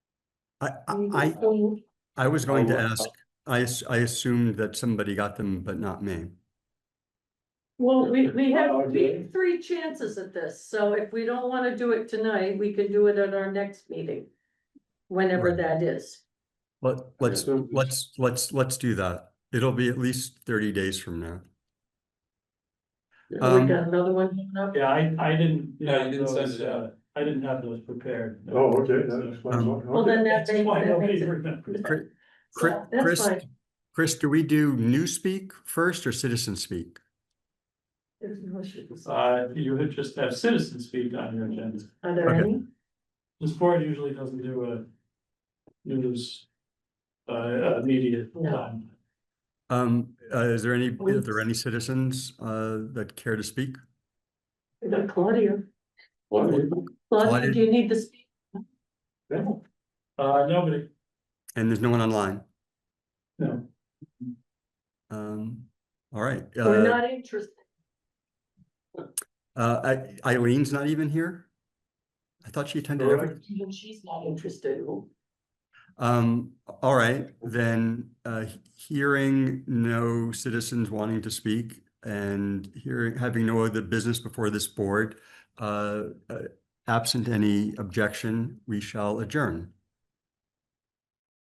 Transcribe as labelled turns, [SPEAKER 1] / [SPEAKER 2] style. [SPEAKER 1] I, I, I-
[SPEAKER 2] Mhm.
[SPEAKER 1] I was going to
[SPEAKER 3] Oh,
[SPEAKER 1] ask, I, as- I assumed that somebody got them, but not me.
[SPEAKER 2] Well, we, we
[SPEAKER 3] Well,
[SPEAKER 2] have
[SPEAKER 3] yeah.
[SPEAKER 2] three, three chances at this, so if we don't wanna do it tonight, we can do it at our next meeting. Whenever
[SPEAKER 1] Right.
[SPEAKER 2] that is.
[SPEAKER 1] But let's,
[SPEAKER 3] so it's-
[SPEAKER 1] let's, let's, let's do that. It'll be at least thirty days from now.
[SPEAKER 2] We
[SPEAKER 1] Um,
[SPEAKER 2] got another one coming up.
[SPEAKER 4] Yeah, I, I didn't.
[SPEAKER 3] Yeah, you didn't
[SPEAKER 4] have
[SPEAKER 3] send
[SPEAKER 4] those,
[SPEAKER 3] it out.
[SPEAKER 4] uh, I didn't have those prepared. no.
[SPEAKER 3] Oh, okay,
[SPEAKER 4] So-
[SPEAKER 3] that explains
[SPEAKER 1] Um,
[SPEAKER 3] what.
[SPEAKER 2] Well, then that
[SPEAKER 4] That's
[SPEAKER 2] makes,
[SPEAKER 4] why
[SPEAKER 2] that
[SPEAKER 4] nobody
[SPEAKER 2] makes it.
[SPEAKER 4] remembers.
[SPEAKER 1] Chri- Chri-
[SPEAKER 2] so, That's
[SPEAKER 1] Chris,
[SPEAKER 2] fine.
[SPEAKER 1] Chris, do we do new speak first or citizen speak?
[SPEAKER 2] There's no issues. Are
[SPEAKER 4] Uh, you would just have citizen speak on your agenda.
[SPEAKER 2] there
[SPEAKER 1] okay.
[SPEAKER 2] any?
[SPEAKER 4] This board usually doesn't do a news uh, immediate
[SPEAKER 2] No.
[SPEAKER 4] time.
[SPEAKER 1] Um, uh, is there any,
[SPEAKER 2] We-
[SPEAKER 1] are there any citizens, uh, that care to speak?
[SPEAKER 2] We got Claudia.
[SPEAKER 3] Well,
[SPEAKER 2] Claudia,
[SPEAKER 1] Claudia-
[SPEAKER 2] do you need to speak?
[SPEAKER 4] Uh, nobody,
[SPEAKER 1] And there's no one online?
[SPEAKER 4] no.
[SPEAKER 1] Um, all right.
[SPEAKER 2] We're
[SPEAKER 1] Uh,
[SPEAKER 2] not interested.
[SPEAKER 1] uh, I- Eileen's not even here? I thought she attended every.
[SPEAKER 3] Correct.
[SPEAKER 2] Even she's not interested.
[SPEAKER 1] Um, all right, then, uh, he- hearing no citizens wanting to speak and hearing, having no other business before this board, uh, uh, absent any objection, we shall adjourn.